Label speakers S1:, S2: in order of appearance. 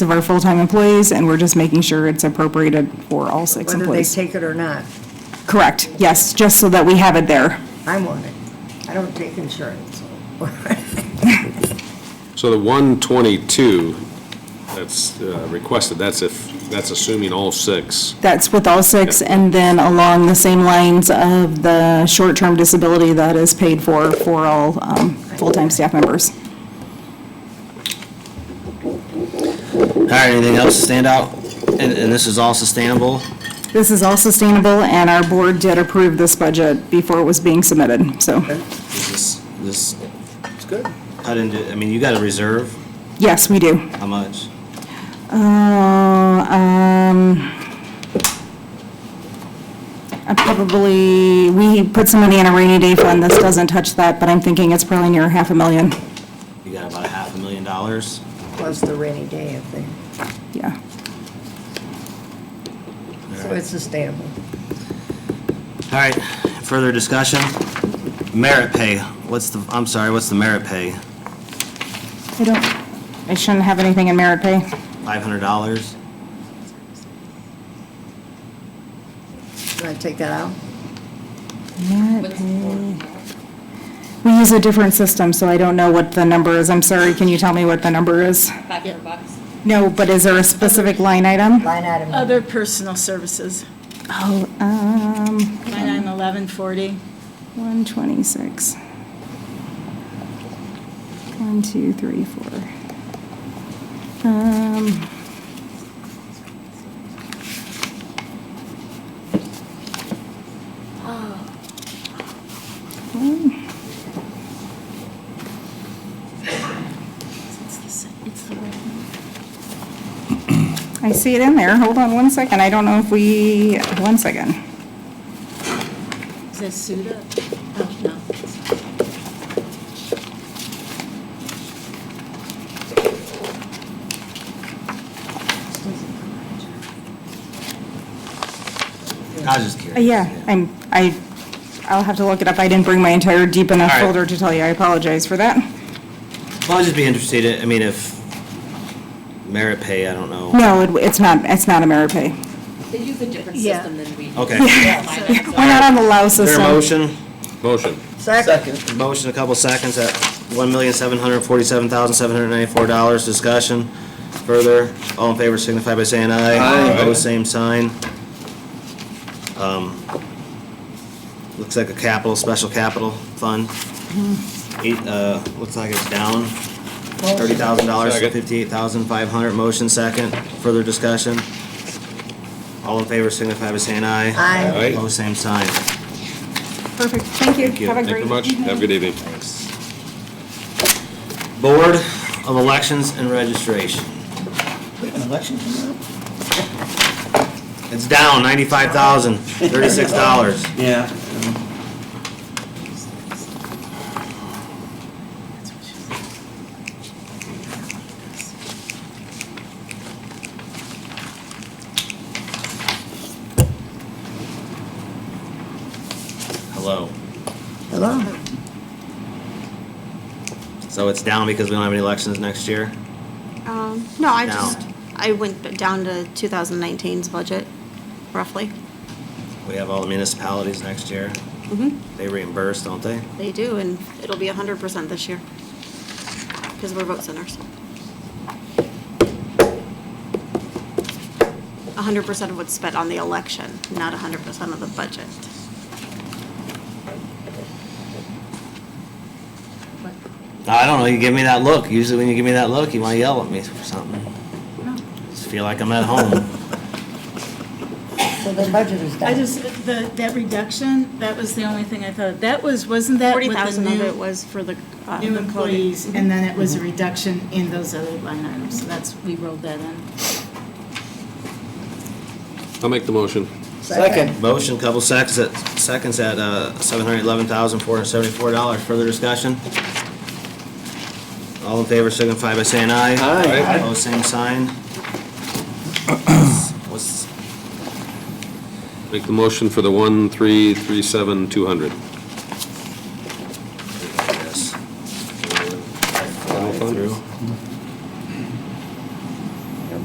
S1: of our full-time employees, and we're just making sure it's appropriated for all six
S2: whether they
S1: employees.
S2: take it or not.
S1: Correct, yes, just so that we have it there.
S2: I'm on it. I don't take insurance. so.
S3: So the 122 that's uh, requested, that's if, that's assuming all six.
S1: That's with all six, and then along the same lines of the short-term disability that is paid for, for all um, full-time staff members.
S4: All right, anything else stand out? And, and this is all sustainable?
S1: This is all sustainable, and our board did approve this budget before it was being submitted, so,
S4: Is This, this. It's good. Cut into, I mean, you got a reserve,
S1: yes, we do.
S4: how much?
S1: Uh, um, I probably, we put some money in a rainy day fund, this doesn't touch that, but I'm thinking it's probably near half a million,
S4: You got about a half a million dollars?
S2: Plus the rainy day thing.
S1: yeah.
S2: So it's sustainable.
S4: All right, further discussion? Merit pay, what's the, I'm sorry, what's the merit pay?
S1: I don't, I shouldn't have anything in merit pay.
S4: Five hundred dollars?
S2: Can I take that out?
S1: We use a different system, so I don't know what the number is. I'm sorry, can you tell me what the number is?
S5: Five hundred bucks.
S1: No, but is there a specific line item?
S2: Line item.
S6: Other personal services,
S1: Oh, um,
S6: line item 1140.
S1: 126. One, two, three, four. Um,
S6: It's the same- it's the right one.
S1: I see it in there. Hold on one second. I don't know if we, one second.
S6: Is that Suda? Oh, no.
S4: I was just
S1: Uh,
S4: curious.
S1: Yeah, I'm, I, I'll have to look it up. I didn't bring my entire deep enough
S4: All right.
S1: folder to tell you. I apologize for that.
S4: Well, I'd just be interested, I mean, if merit pay, I don't know.
S1: No, it- it's not, it's not a merit pay.
S5: They use a different
S6: Yeah.
S5: system than we do.
S4: Okay.
S5: Yeah.
S1: We're not on the LAO
S4: Is there
S1: system.
S4: a motion?
S3: Motion.
S2: Second.
S4: Motion, a couple seconds at one million, seven hundred forty-seven thousand, seven hundred ninety-four dollars. Discussion further. All in favor signify by saying aye.
S3: Aye.
S4: Opposed, same sign. Um, Looks like a capital, special capital fund. Eight, uh, looks like it's down thirty thousand dollars to
S3: Second.
S4: fifty-eight thousand, five hundred. Motion second. Further discussion. All in favor signify by saying aye.
S2: Aye.
S3: Aye.
S4: Opposed, same sign.
S1: Perfect, thank you.
S4: Thank you.
S1: Have a
S4: Thank
S3: Thank
S1: great
S3: you very much.
S1: evening.
S3: Have a good evening.
S4: Board of Elections and Registration. It's down ninety-five thousand, thirty-six dollars.
S7: Yeah.
S4: Hello.
S2: Hello?
S4: So it's down because we don't have any elections next year?
S8: Um, no, I
S4: Down.
S8: just, I went b- down to 2019's budget, roughly.
S4: We have all the municipalities next year. They reimburse, don't they?
S8: They do, and it'll be 100% this year, because we're vote centers. 100% of what's spent on the election, not 100% of the budget.
S4: I don't know, you give me that look. Usually when you give me that look, you wanna yell at me or something. Just feel like I'm at home.
S2: So the budget is down.
S6: I just, the, that reduction, that was the only thing I thought, that was, wasn't that with the
S8: 40,000 of
S6: new-
S8: it was for the. uh,
S6: New
S8: the Mm-hmm. coding.
S6: employees, and then it was a reduction in those other line items, so that's, we rolled that in.
S3: I'll make the motion.
S7: Second.
S4: Motion, couple seconds at, seconds at uh, $711,474. Further discussion? All in favor signify by saying aye.
S7: Aye.
S4: Opposed, same sign. What's,
S3: Make the motion for the 1337200.